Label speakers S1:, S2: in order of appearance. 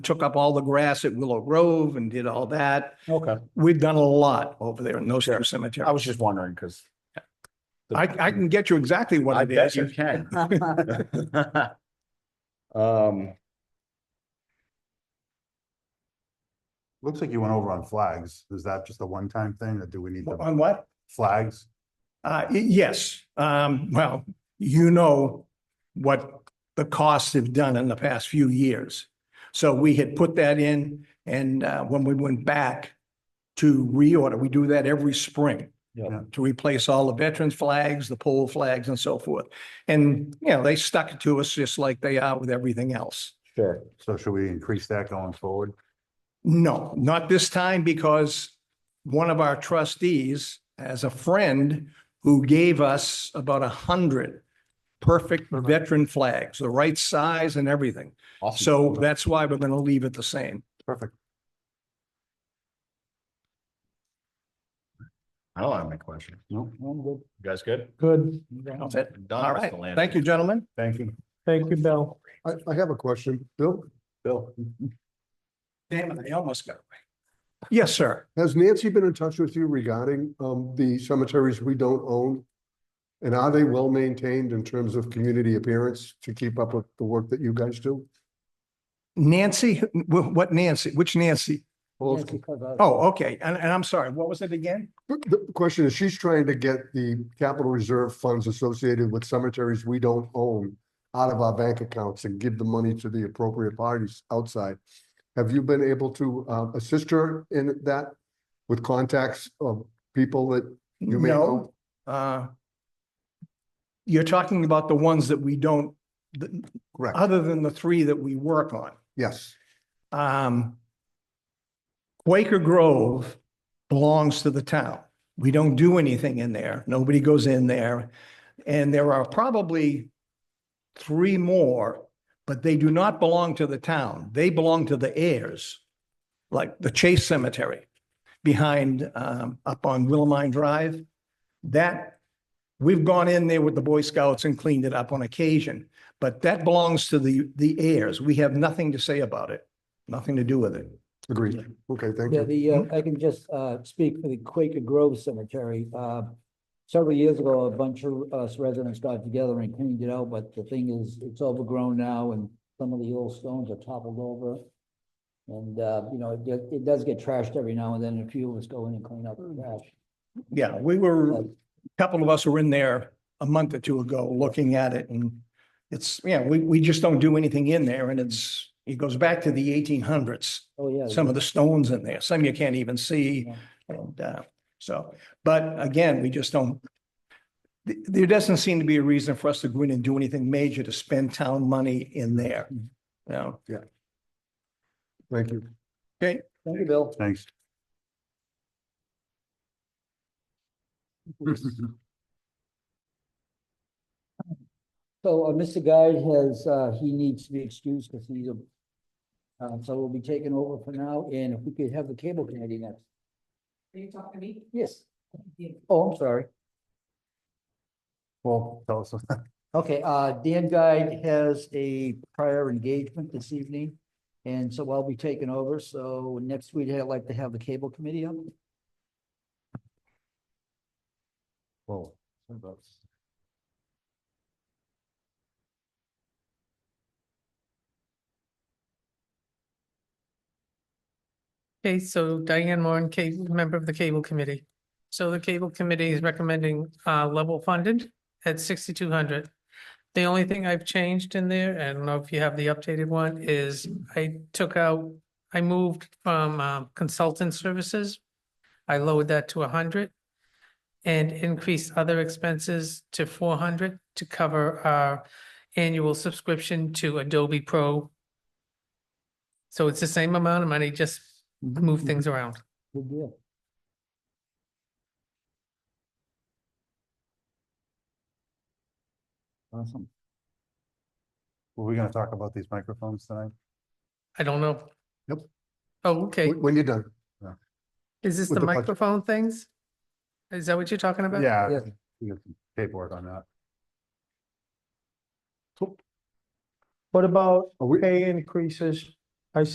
S1: took up all the grass at Willow Grove and did all that.
S2: Okay,
S1: We've done a lot over there in those
S2: Sure.
S1: two
S2: I
S1: cemeteries.
S2: was just wondering, because.
S1: I, I can get you exactly
S2: I
S1: what it
S2: bet
S1: is.
S2: you can. Um.
S3: Looks like you went over on flags. Is that just a one-time thing or do we need the
S1: On what?
S3: flags?
S1: Uh, y- yes, um, well, you know what the costs have done in the past few years. So we had put that in and, uh, when we went back to reorder, we do that every spring. Uh,
S2: Yeah.
S1: To replace all the veterans flags, the pole flags and so forth. And, you know, they stuck it to us just like they are with everything else.
S2: Sure.
S3: So should we increase that going forward?
S1: No, not this time because one of our trustees has a friend who gave us about a hundred perfect veteran flags, the right size and everything.
S2: Awesome.
S1: So that's why we're going to leave it the same.
S3: Perfect.
S4: I don't have my question.
S3: No, I'm good.
S4: You guys good?
S5: Good.
S1: That's it.
S4: I'm done
S1: All
S4: with
S1: right.
S4: the land.
S1: Thank you, gentlemen.
S3: Thank you.
S5: Thank you, Bill.
S3: I, I have a question. Bill?
S2: Bill.
S1: Damn it, I almost got away. Yes, sir.
S6: Has Nancy been in touch with you regarding um the cemeteries we don't own? And are they well maintained in terms of community appearance to keep up with the work that you guys do?
S1: Nancy, wh- what Nancy, which Nancy?
S6: Well,
S1: Oh, okay. And, and I'm sorry, what was it again?
S6: The the question is, she's trying to get the capital reserve funds associated with cemeteries we don't own out of our bank accounts and give the money to the appropriate parties outside. Have you been able to uh assist her in that with contacts of people that you may know?
S1: No, Uh, You're talking about the ones that we don't, th-
S6: Correct.
S1: other than the three that we work on.
S6: Yes,
S1: Um, Quaker Grove belongs to the town. We don't do anything in there. Nobody goes in there. And there are probably three more, but they do not belong to the town. They belong to the heirs, like the Chase Cemetery behind, um, up on Willamine Drive. That, we've gone in there with the Boy Scouts and cleaned it up on occasion, but that belongs to the, the heirs. We have nothing to say about it nothing to do with it.
S6: agreed. Okay, thank
S5: Yeah,
S6: you.
S5: the, uh, I can just, uh, speak for the Quaker Grove Cemetery. Uh, several years ago, a bunch of us residents got together and cleaned it out, but the thing is, it's overgrown now and some of the old stones are toppled over. And, uh, you know, it, get- it does get trashed every now and then. and A few of us go in and clean out the trash.
S1: Yeah, we were, a couple of us were in there a month or two ago looking at it and it's, yeah, we, we just don't do anything in there and it's, it goes back to the eighteen hundreds.
S5: Oh, yeah.
S1: Some of the stones in there, some you can't even see
S5: Yeah.
S1: and, uh, so, but again, we just don't th- there doesn't seem to be a reason for us to go in and do anything major to spend town money in there. You know,
S6: Thank you.
S5: Thank you, Bill.
S3: Thanks.
S5: So, uh, Mr. Guy has, uh, he needs to be excused because he's a, uh, so we'll be taking over for now, and if we could have the cable committee next.
S7: Are you talking to me?
S5: Yes. Oh, I'm sorry.
S3: Well, tell us.
S5: Okay, uh, Dan Guy has a prior engagement this evening, and so I'll be taking over, so next week I'd like to have the cable committee up.
S3: Well,
S8: Okay, so Diane Warren, cable, member of the Cable Committee. So the Cable Committee is recommending uh level funded at sixty-two hundred. The only thing I've changed in there, I don't know if you have the updated one, is I took out, I moved from um, consultant services. I lowered that to hundred and increased other expenses to four hundred to cover our annual subscription to Adobe Pro. So it's the same amount of money, just move things around.
S5: Good deal. Awesome.
S3: Were we gonna talk about these microphones tonight?
S8: I don't know.
S3: Nope.
S8: Oh, okay.
S6: When when you're done.
S8: Is this
S6: with
S8: the
S6: the budget.
S8: microphone things? Is that what you're talking about?
S3: Yeah.
S5: Yes.
S3: We got some Paperwork on that.
S5: What about
S6: Are we,
S5: pay increases